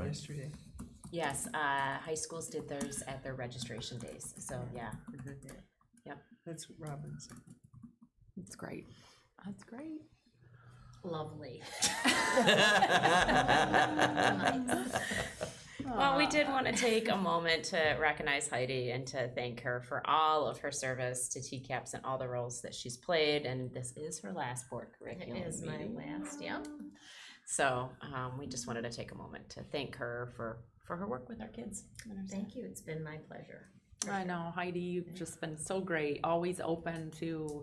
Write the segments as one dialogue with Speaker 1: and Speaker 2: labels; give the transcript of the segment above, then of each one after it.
Speaker 1: yesterday.
Speaker 2: Yes, uh, high schools did theirs at their registration days, so, yeah. mhm.
Speaker 1: Mm-hmm. That's Robin's.
Speaker 3: That's great. That's great.
Speaker 2: Lovely. Well, we
Speaker 3: Aw.
Speaker 2: did want to take a moment to recognize Heidi and to thank her for all of her service to TCAPS and all the roles that she's played. And this is her last board curriculum.
Speaker 4: is my
Speaker 2: meeting. Yep. So um, we just wanted to take a moment to thank her for, for her work with our kids. and our staff.
Speaker 4: Thank you, it's been my pleasure.
Speaker 3: I know, Heidi, you've just been so great, always open to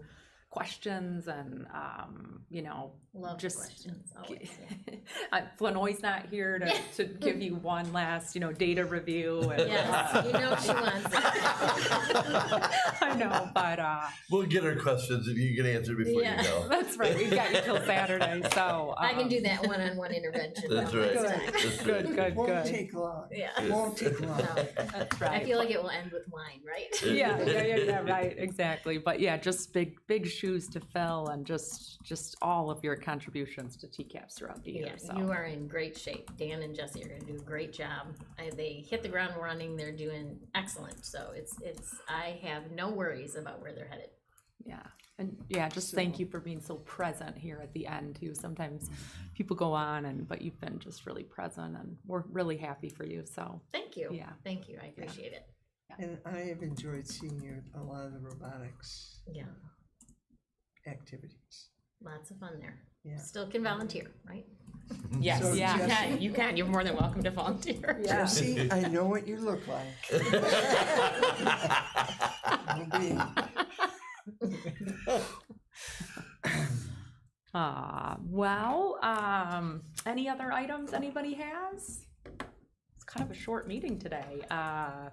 Speaker 3: questions and, um, you know,
Speaker 4: Love the
Speaker 3: Just-
Speaker 4: questions, always, yeah.
Speaker 3: Uh, Flanoy's not here to, to give you one last, you know, data review. and, uh,
Speaker 4: Yes, you know she wants it.
Speaker 3: I know, but, uh,
Speaker 5: We'll get our questions if you can answer before
Speaker 4: Yeah.
Speaker 5: you go.
Speaker 3: that's right, we've got you till Saturday, so.
Speaker 4: I can
Speaker 3: um,
Speaker 4: do that one-on-one intervention.
Speaker 5: That's
Speaker 4: one
Speaker 5: right.
Speaker 4: last time.
Speaker 5: That's
Speaker 3: Good,
Speaker 5: right.
Speaker 3: good,
Speaker 1: Won't
Speaker 3: good.
Speaker 1: take long.
Speaker 4: Yeah.
Speaker 1: Won't take long.
Speaker 4: No.
Speaker 3: That's
Speaker 4: I
Speaker 3: right.
Speaker 4: feel like it will end with wine, right?
Speaker 3: yeah, yeah, yeah, yeah, right, exactly. But yeah, just big, big shoes to fill, and just, just all of your contributions to TCAPS throughout the year.
Speaker 4: Yeah,
Speaker 3: So
Speaker 4: you are in great shape. Dan and Jesse are going to do a great job. I, they hit the ground running. They're doing excellent. So it's it's. I have no worries about where they're headed.
Speaker 3: yeah, and yeah, just thank you for being so present here at the end too. Sometimes
Speaker 4: Mm-hmm.
Speaker 3: people go on, and but you've been just really present, and we're really happy for you. So
Speaker 4: Thank you.
Speaker 3: Yeah.
Speaker 4: Thank you. I appreciate it.
Speaker 1: And I have enjoyed seeing your, a lot of the robotics
Speaker 4: Yeah.
Speaker 1: activities.
Speaker 4: Lots of fun there.
Speaker 1: Yeah.
Speaker 4: Still can volunteer, right?
Speaker 2: Yes,
Speaker 1: So
Speaker 2: yeah, you
Speaker 1: Jesse-
Speaker 2: can, you can. You're more than welcome to volunteer.
Speaker 3: Yeah.
Speaker 1: Jesse, I know what you look like. I'll be-
Speaker 3: Uh, well, um, any other items anybody has? It's kind of a short meeting today. Uh,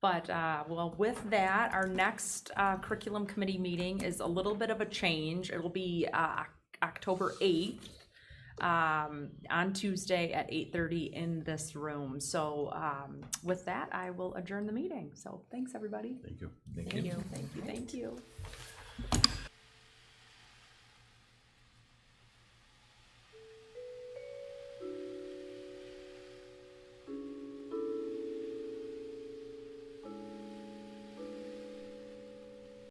Speaker 3: but, uh, well, with that, our next, uh, curriculum committee meeting is a little bit of a change. It'll be, uh, Oc- October eighth um, on Tuesday at eight thirty in this room. So, um, with that, I will adjourn the meeting. So thanks, everybody.
Speaker 5: Thank you. Thank
Speaker 4: Thank you.
Speaker 3: Thank you, thank you.